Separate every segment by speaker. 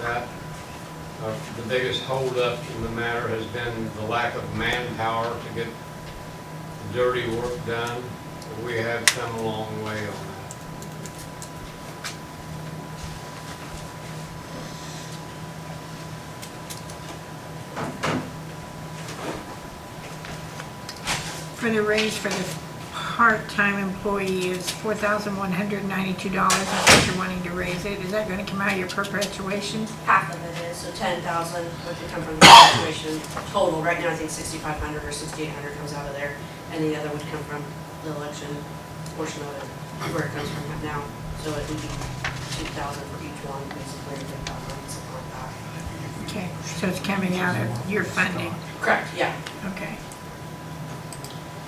Speaker 1: that. Uh, The biggest holdup in the matter has been the lack of manpower to get the dirty work done. But We have come a long way on that.
Speaker 2: For the raise for the part-time employee is four thousand one hundred ninety-two dollars, if you're wanting to raise it, is that gonna come out of your perpetuation?
Speaker 3: half of it is, so ten thousand would come from the situation total. Right now, I think sixty-five hundred or sixty-eight hundred comes out of there, and the other would come from the election portion of it, where it comes from right now. So it would be two thousand for each one, basically, or ten thousand, something like that.
Speaker 2: Okay, so it's coming out of your funding,
Speaker 3: Correct, yeah.
Speaker 2: okay.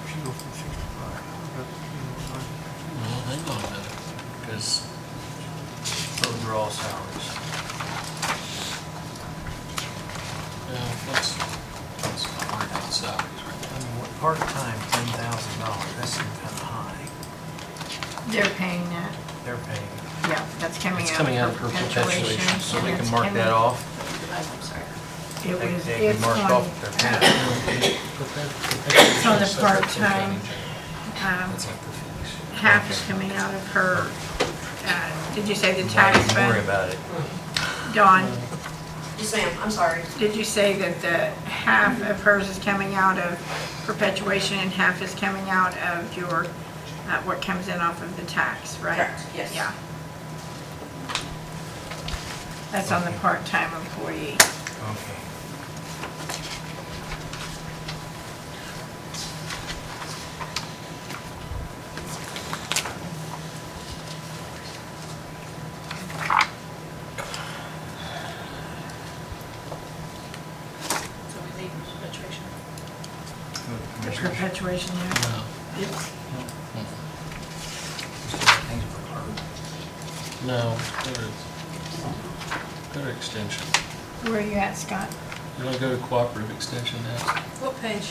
Speaker 4: Should go from sixty-five.
Speaker 5: Well, hang on a minute, because those are all salaries. Yeah, let's, let's not worry about salaries right
Speaker 4: I mean, what, part-time, ten thousand dollars, that seems kinda high.
Speaker 2: They're paying that,
Speaker 4: They're paying.
Speaker 2: yeah, that's
Speaker 5: now.
Speaker 2: coming
Speaker 5: It's
Speaker 2: out
Speaker 5: coming out
Speaker 2: of
Speaker 5: of her
Speaker 2: perpetuation.
Speaker 5: perpetuation, so we
Speaker 2: and
Speaker 5: can
Speaker 2: it's
Speaker 5: mark that
Speaker 2: coming-
Speaker 5: off.
Speaker 3: I'm sorry.
Speaker 2: It
Speaker 4: They-
Speaker 2: was,
Speaker 4: They can
Speaker 2: it's
Speaker 4: mark
Speaker 2: on,
Speaker 4: off their half.
Speaker 5: It's
Speaker 2: on the part-time. um, half is coming out of her, uh, did you say the tax
Speaker 5: Don't worry
Speaker 2: fund?
Speaker 5: about it.
Speaker 2: Dawn,
Speaker 3: Yes, ma'am, I'm sorry.
Speaker 2: Did you say that the half of hers is coming out of perpetuation and half is coming out of your, uh, what comes in off of the tax, right?
Speaker 3: Correct, yes.
Speaker 2: Yeah. That's on the part-time employee.
Speaker 4: Okay.
Speaker 6: So we leave perpetuation.
Speaker 2: The perpetuation there.
Speaker 5: No.
Speaker 2: It's-
Speaker 5: No, go to, go to extension.
Speaker 2: Where are you at, Scott?
Speaker 5: You want to go to cooperative extension next?
Speaker 6: What page?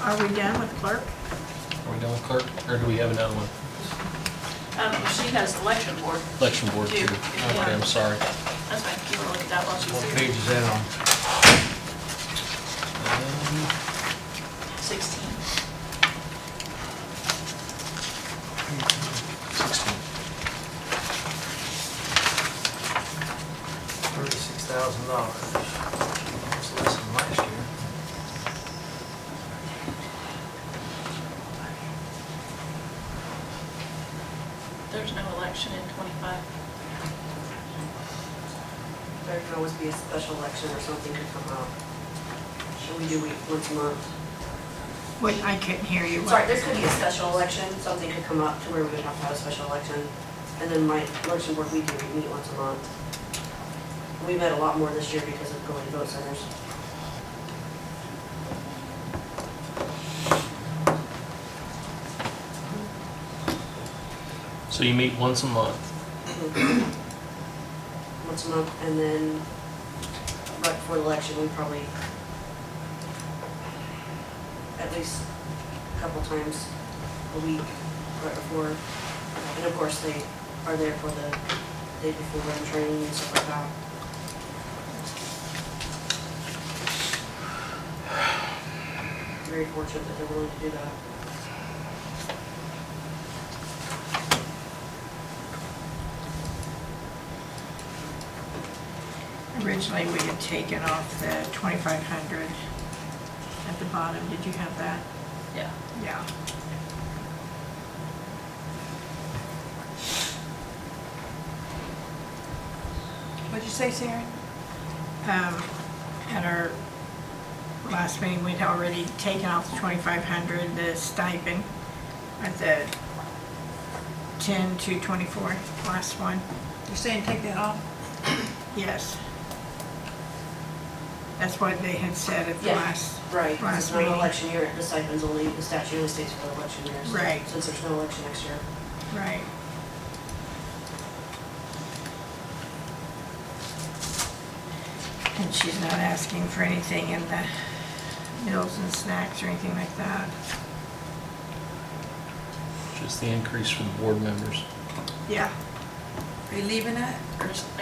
Speaker 2: Are we done with clerk?
Speaker 5: Are we done with clerk, or do we have another one?
Speaker 6: Um, she has election board.
Speaker 5: Election board too.
Speaker 6: Two.
Speaker 5: Okay, I'm sorry.
Speaker 6: That's fine, you wanna look at that while
Speaker 4: What
Speaker 6: she's
Speaker 4: page is
Speaker 6: here.
Speaker 4: that on?
Speaker 5: Um,
Speaker 6: Sixteen.
Speaker 5: Sixteen.
Speaker 4: Thirty-six thousand dollars. That's less than last year.
Speaker 6: There's no election in twenty-five.
Speaker 3: There could always be a special election or something to come out. Should we do it once a month?
Speaker 2: Wait, I couldn't hear you.
Speaker 3: Sorry, there could be a special election, something could come up to where we would have to have a special election. And then my election board, we do, we meet once a month. We met a lot more this year because of going to vote centers.
Speaker 5: So you meet once a month.
Speaker 3: Once a month, and then right before the election, we probably at least a couple times a week right before. And of course, they are there for the day before and training and stuff like that. Very fortunate that they're willing to do that.
Speaker 2: Originally, we had taken off the twenty-five hundred at the bottom. Did you have that?
Speaker 6: Yeah.
Speaker 2: Yeah. What'd you say, Sarah? Um, at our last meeting, we'd already taken off the twenty-five hundred, the stipend at the ten to twenty-four, last one.
Speaker 7: You're saying take that off?
Speaker 2: Yes. That's what they had said at the
Speaker 3: Yeah.
Speaker 2: last,
Speaker 3: Right, 'cause
Speaker 2: Last
Speaker 3: it's not an
Speaker 2: meeting.
Speaker 3: election year, the stipends only, the statute only states for election years.
Speaker 2: Right.
Speaker 3: Since there's no election next year.
Speaker 2: right. And she's not asking for anything in the meals and snacks or anything like that?
Speaker 5: Just the increase for the board members.
Speaker 2: Yeah.
Speaker 7: Are you leaving that?
Speaker 6: There's